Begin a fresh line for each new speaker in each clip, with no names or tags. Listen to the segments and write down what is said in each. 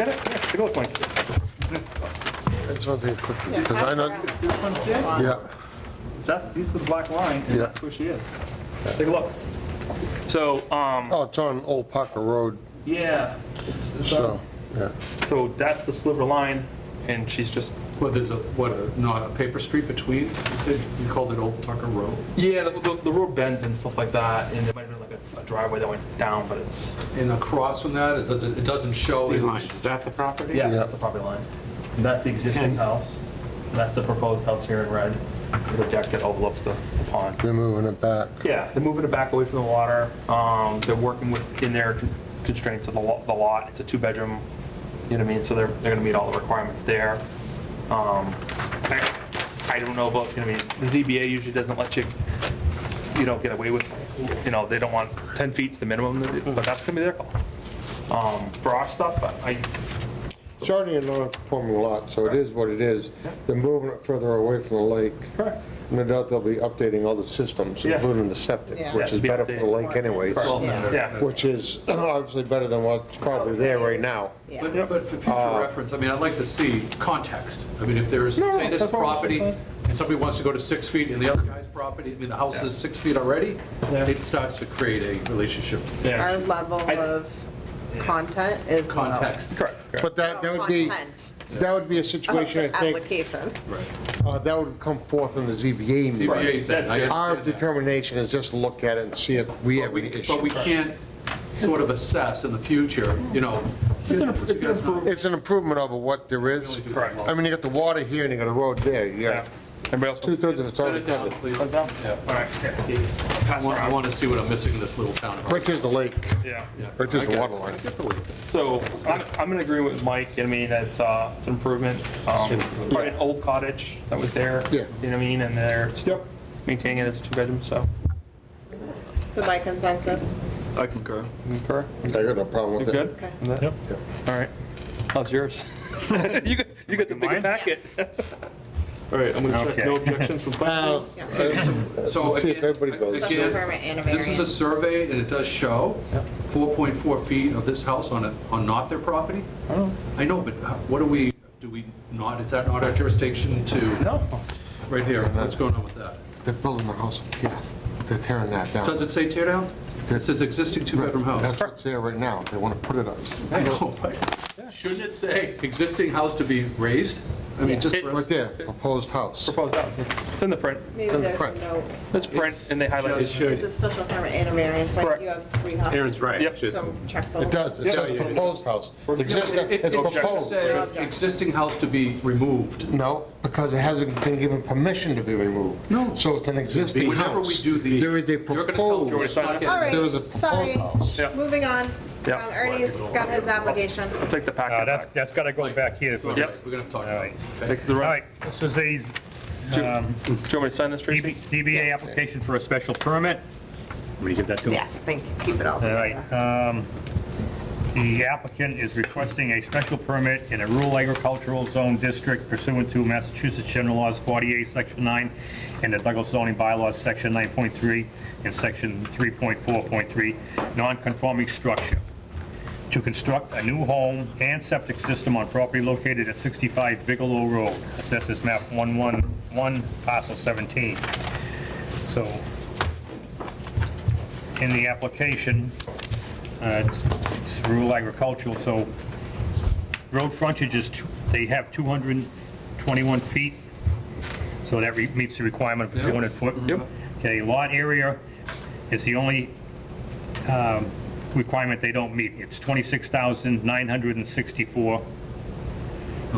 Get it? Yeah, take a look, Mike.
I just want to take a quick, because I know,
See which one's this?
yeah,
That's, this is the black line,
Yeah.
and that's where she is. Take a look. So, um,
oh, it's on Old Parker Road,
yeah, it's, it's, uh,
so, yeah.
so that's the sliver line, and she's just,
Well, there's a, what, a- not a paper street between? You said you called it Old Tucker Road.
yeah, the, the- the road bends and stuff like that, and there might have been like a- a driveway that went down, but it's,
And across from that, it doesn't, it doesn't show.
Three lines, is that the property?
yeah,
Yeah.
that's the property line. And that's the existing
And-
house, and that's the proposed house here in red, the deck that overlooks the the pond.
They're moving it back.
Yeah, they're moving it back away from the water. Um, They're working within their constraints of the lo- the lot. It's a two-bedroom, you know what I mean? So they're, they're gonna meet all the requirements there. Um, I I don't know about, you know, what I mean, the ZBA usually doesn't let you, you know, get away with, you know, they don't want 10 feet's the minimum, but that's gonna be their call. Um, For our stuff, I,
It's already a non-conforming lot, so it is what it is. They're moving it further away from the lake.
Correct.
No doubt they'll be updating all the systems,
Yeah.
including the septic,
Yeah.
which is
Yeah,
better for the lake anyways,
Well, no, no.
yeah.
which is obviously better than what's probably there
Oh,
right now.
Yeah.
But but for future reference, I mean, I'd like to see context. I mean, if there's,
No,
say this
that's all.
property, and somebody wants to go to six feet, and the other guy's property, I mean, the house is six feet already,
Yeah.
it starts to create a relationship.
Our
yeah.
level
I-
of content is low.
Context.
Correct, correct.
But that, that would be,
Content
that would be a
of
situation,
the
Oh,
I think,
application.
uh, that would come forth in the ZBA. meeting.
CBA said, and I
That's it.
Our
understand that.
determination is just to look at it and see if we have
But we-
any
But we
issue.
can't sort of assess in the future, you know.
It's an it's an improvement.
It's an improvement over what there is.
Correct.
I mean, you got the water here and you got a road there. You
Yeah.
got
Everybody else?
two-thirds of it's
Set
already
it down,
covered,
please.
Put it down?
Yeah.
All right, yeah, yeah, yeah.
I
Pass
want, I
around.
want to see what I'm missing in this little town. of ours.
which is the lake.
Yeah.
Yeah.
Which is
I
the
get it.
water line.
I get the way it is.
So I'm, I'm in agreement with Mike, you know what I mean, it's, uh, it's an improvement. Um, Probably an old cottage that was there. You
Yeah.
know what I mean, and they're still maintaining it as a two-bedroom, so.
So by consensus,
I concur. Concur?
I got no problem
You
with it.
good?
okay.
Yep. All right, how's yours? You got, you got the bigger
Mine?
packet.
Yes.
All right, I'm gonna
Okay.
check, no objections from
Uh,
planning.
So
Let's see if
again,
everybody goes.
Special
again,
permit and a
this is a
variance.
survey and it does show 4.4 feet of this house on, a- on not their property? I know, but how- what do we, do we not, is that not our jurisdiction to,
No,
right here, what's going on with that?
They're building the house up here. They're tearing that down.
Does it say tear down? It says existing two-bedroom house.
That's what's there right now. They want to put it up.
I know, but shouldn't it say existing house to be raised? I mean, just.
It-
for us-
Right there, proposed house.
proposed house, it's in the print,
Maybe
Doesn't
there's
print.
no,
it's print,
It's
and they
just
highlighted.
should-
it's a special permit and a variance, like
Correct.
you have three houses.
Aaron's right.
Yep.
Should-
So check both.
It does. It says proposed house. It's existing-
It-
It's
It should
proposed.
say existing house to be removed.
No, because it hasn't been given permission to be removed.
No.
So it's an existing house.
Whenever we do these.
There is a
you're gonna tell-
You're
proposed,
gonna sign
All
it?
there is a
right, sorry,
proposed house.
Yeah.
moving on.
Yeah.
Um, Ernie's got his application.
Take the
Uh,
packet
That's,
back.
that's got to go back here.
So
All
We're
Yep.
gonna talk about this. okay?
Take the
right,
right.
this is a Z-
Do you do you want me to sign this, Tracy?
ZBA application for a special permit. Let me give that to him.
Yes, thank you, keep it all
All
together.
right. um, The applicant is requesting a special permit in a rural agricultural zone district pursuant to Massachusetts General Laws 48, Section 9, and the Douglas zoning bylaws, Section 9.3 and Section 3.4.3, non-conforming structure, to construct a new home and septic system on property located at 65 Bigelow Road, assesses map 111, parcel 17. So, in the application, uh, It's it's rural agricultural, so road frontage is, two- they have 221 feet, so that re- meets the requirement of
Yeah.
200 foot.
Yep.
Okay, lot area is the only um, requirement they don't meet. It's 26,964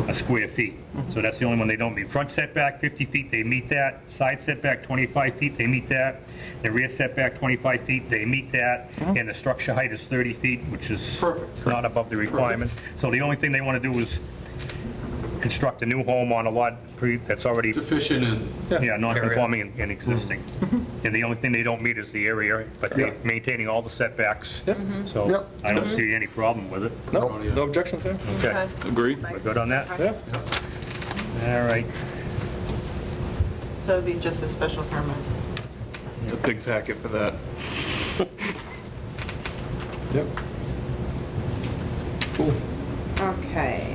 a square feet. So that's the only one they don't meet. Front setback, 50 feet, they meet that. Side setback, 25 feet, they meet that. The rear setback, 25 feet, they meet that. And the structure height is 30 feet, which is
Perfect.
not above the requirement. So the only thing they want to do is construct a new home on a lot pre- that's already,
Deficient in,
yeah, non-conforming and- and existing. And the only thing they don't meet is the area, but they're
Yeah.
maintaining all the setbacks. So
Yep.
I don't see any problem with it.
No, no objections there?
Okay,
Agree.
we're good on that?
Okay.
All right.
So it'd be just a special permit.
A big packet for that.
Yep. Cool.
Okay.